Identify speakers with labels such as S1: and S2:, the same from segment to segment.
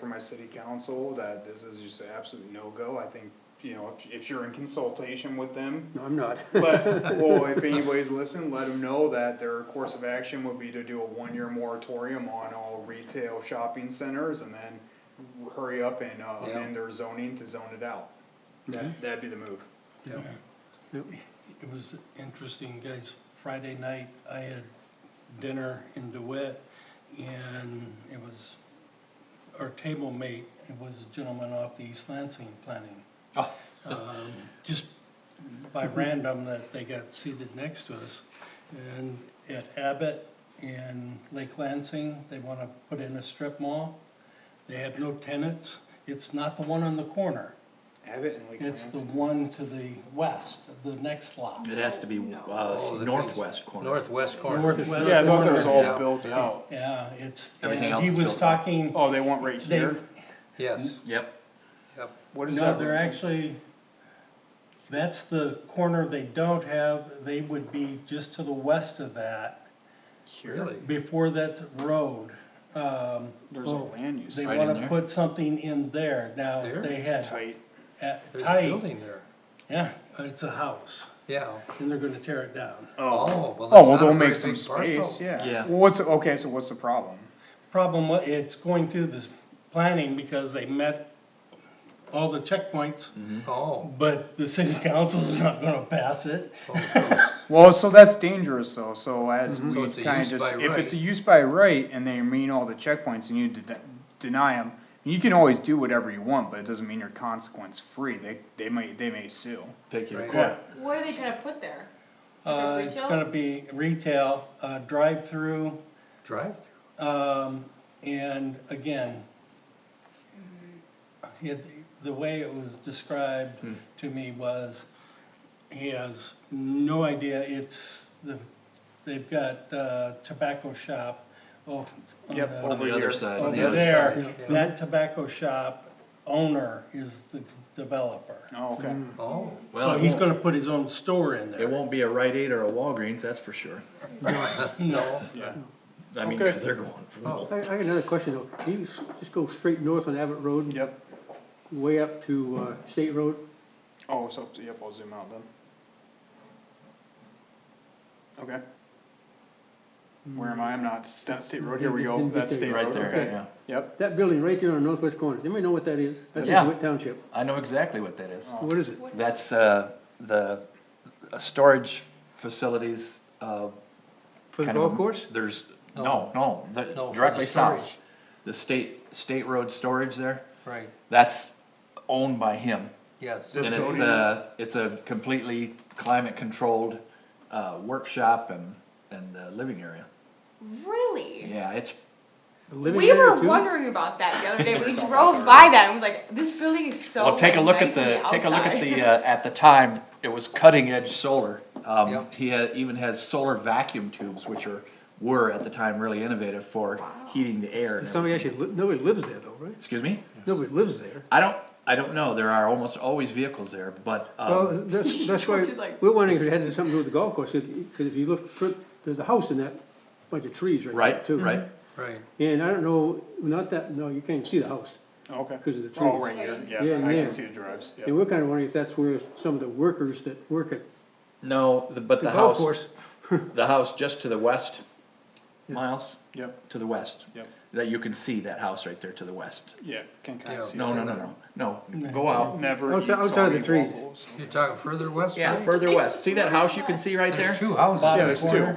S1: from my city council that this is just an absolute no-go. I think, you know, if, if you're in consultation with them,
S2: No, I'm not.
S1: but, well, if anybody's listening, let them know that their course of action would be to do a one-year moratorium on all retail shopping centers and then hurry up and, uh,
S3: Yeah.
S1: amend their zoning to zone it out. That, that'd be the move.
S2: Yep. Yep.
S4: It was interesting, guys. Friday night, I had dinner in DeWitt, and it was, our table mate, it was a gentleman off the East Lansing planning. Um, Just by random that they got seated next to us. And at Abbott and Lake Lansing, they wanna put in a strip mall. They have no tenants. It's not the one on the corner.
S1: Abbott and Lake
S4: It's the
S1: Lansing.
S4: one to the west, the next lot.
S5: It has to be uh,
S3: Oh, the
S5: northwest corner.
S3: Northwest corner.
S4: Northwest
S1: Yeah, I thought that was
S4: corner.
S1: all built out.
S4: Yeah, it's,
S5: Everything
S4: and
S5: else
S4: he
S5: is
S4: was
S5: built up.
S4: talking,
S1: Oh, they want right
S4: They-
S1: here?
S3: Yes,
S5: Yep.
S3: yep.
S1: What is
S4: no,
S1: that?
S4: they're actually, that's the corner they don't have, they would be just to the west of that,
S3: Really?
S4: before that road. Um,
S1: There's a land use.
S4: they
S5: Right in
S4: wanna
S5: there?
S4: put something in there, now
S3: There?
S4: they
S1: It's
S4: had,
S1: tight.
S4: uh,
S3: There's a
S4: tight,
S3: building there.
S4: yeah, it's a house,
S3: Yeah.
S4: and they're gonna tear it down.
S3: Oh, well,
S1: Oh,
S3: that's
S1: well,
S3: not
S1: they'll
S3: a very
S1: make some
S3: big
S1: space,
S3: parcel.
S1: yeah.
S5: Yeah.
S1: Well, what's, okay, so what's the problem?
S4: Problem, wa- it's going through this planning because they met all the checkpoints,
S5: Mm.
S3: Oh,
S4: but the city council is not gonna pass it.
S3: oh, so-
S1: Well, so that's dangerous though, so as
S3: Mm-hmm. So
S1: we
S3: it's a
S1: kinda
S3: use
S1: just,
S3: by
S1: if it's
S3: right.
S1: a use by right and they mean all the checkpoints and you de- deny them, you can always do whatever you want, but it doesn't mean you're consequence free, they, they may, they may sue.
S5: Take your
S3: Right.
S5: court.
S6: What are they trying to put there?
S4: Uh,
S6: Like a
S4: it's
S6: retail?
S4: gonna be retail, uh, drive-through,
S3: drive,
S4: um, and again, he had- the way it was described
S5: Hmm.
S4: to me was, he has no idea, it's, the, they've got, uh, tobacco shop, oh. on
S1: Yep,
S4: the-
S1: over
S5: On the
S1: here.
S5: other side.
S3: On the
S4: Over
S3: other
S4: there,
S3: side, yeah.
S4: that tobacco shop owner is the developer.
S1: Oh, okay.
S3: oh,
S5: Well,
S4: So
S5: it
S4: he's
S5: won't,
S4: gonna put his own store in there.
S5: it won't be a Rite Aid or a Walgreens, that's for sure.
S4: No.
S1: Yeah.
S5: I mean,
S1: Okay.
S5: cause they're going full.
S2: I, I got another question though. Can you s- just go straight north on Abbott Road?
S1: Yep,
S2: Way up to, uh, State Road?
S1: oh, so, yep, I'll zoom out then. Okay. Where am I? I'm not, Sta- State Road, here we go,
S2: Didn't get
S1: that's
S2: there.
S3: Oh.
S1: State Road,
S5: Right there,
S1: okay.
S5: yeah.
S1: Yep,
S2: That building right there on the northwest corner. Does anybody know what that is? That's
S5: Yeah.
S2: in Witt Township.
S5: I know exactly what that is.
S2: What is it?
S5: That's, uh, the, uh, storage facilities, uh.
S2: For the
S5: kind of
S2: golf
S5: a-
S2: course?
S5: There's, no, no, the-
S3: No, for
S5: directly
S3: the
S5: south.
S3: storage.
S5: The state, state road storage there,
S3: right,
S5: that's owned by him.
S3: yes.
S1: This
S5: And it's
S1: building is-
S5: a, it's a completely climate-controlled, uh, workshop and, and, uh, living area.
S6: Really?
S5: Yeah, it's,
S2: A living
S6: we
S2: area,
S6: were
S2: too?
S6: wondering about that the other day. We
S1: It's all
S6: drove
S1: out
S6: by that and was like, this building is so.
S5: well, take a look at
S6: nice on
S5: the, take a look at
S6: outside.
S5: the, uh, at the time, it was cutting-edge solar. Um,
S3: Yep.
S5: he had, even has solar vacuum tubes, which are, were at the time really innovative for heating the air. and
S2: Somebody
S5: everything.
S2: actually, li- nobody lives there though, right?
S5: Excuse me?
S2: Nobody lives there.
S5: I don't, I don't know, there are almost always vehicles there, but, um,
S2: Well, that's, that's why,
S6: Which is like-
S2: we're wondering if it had something to do with the golf course, because if you look, fr- there's a house in that bunch of trees right there
S5: right,
S2: too.
S5: right,
S3: Right,
S2: And I don't know, not that, no, you can't even see the house.
S1: okay.
S2: 'Cause of the
S1: Oh,
S2: trees.
S1: right here,
S2: Yeah,
S1: yeah, I
S2: yeah.
S1: can see the drives,
S2: And
S1: yeah.
S2: we're kinda wondering if that's where some of the workers that work at
S5: no, the- but
S2: the
S5: the
S2: golf
S5: house,
S2: course,
S5: the house just to the west, Miles,
S1: Yep,
S5: to the west.
S1: yep,
S5: That you can see that house right there to the west.
S1: yeah, can kinda
S3: Yeah.
S1: see.
S5: No,
S1: it.
S5: no, no, no, no, go out.
S1: Never
S2: Outside-
S1: eat
S2: outside of the
S1: soggy
S2: trees.
S1: waffles.
S3: you're talking further west,
S5: Yeah,
S3: right?
S5: further west, see that house you can see right there?
S3: There's two houses,
S1: Yeah, there's two.
S5: No, no,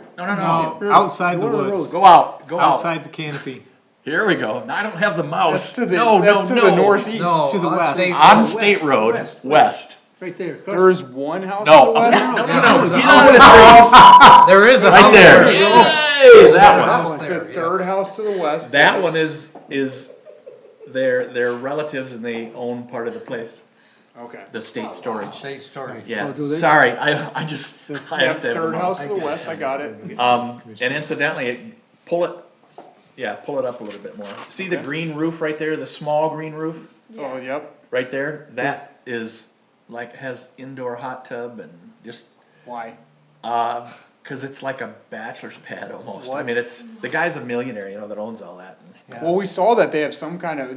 S5: no,
S7: Outside the
S2: One on the
S7: woods,
S2: road.
S5: go out, go out,
S7: outside the canopy.
S5: here we go, No, I don't have the
S1: That's
S5: mouse,
S1: to
S5: no,
S1: the,
S5: no, no.
S1: that's to the northeast.
S3: no,
S7: to the
S3: on
S7: west.
S3: State
S5: On
S3: Road.
S5: State Road, west,
S2: right there. across-
S1: There is one house to
S5: No.
S1: the west?
S5: no, no,
S3: Yeah,
S5: no,
S3: there's a
S5: get
S3: house-
S5: out of the trees,
S3: There is a house.
S5: right there,
S3: There's
S5: Yay,
S3: a
S5: that one.
S3: house
S1: The
S3: there, yes.
S1: third house to the west.
S5: That
S1: yes.
S5: one is, is their, their relatives and they own part of the place,
S1: Okay.
S5: the state storage.
S3: State storage.
S5: Yeah,
S2: do they?
S5: sorry, I, I just, I
S1: Yeah,
S5: have to have the
S1: third house
S5: mouse.
S1: to the west, I got it.
S5: Um, and incidentally, it- pull it, yeah, pull it up a little bit more. See the
S1: Okay.
S5: green roof right there, the small green roof,
S1: Oh, yep.
S5: right there? That is like, has indoor hot tub and just,
S1: Why?
S5: uh, cause it's like a bachelor's pad almost. I
S1: What?
S5: mean, it's, the guy's a millionaire, you know, that owns all that. and-
S1: Well, we saw that they have some kind of,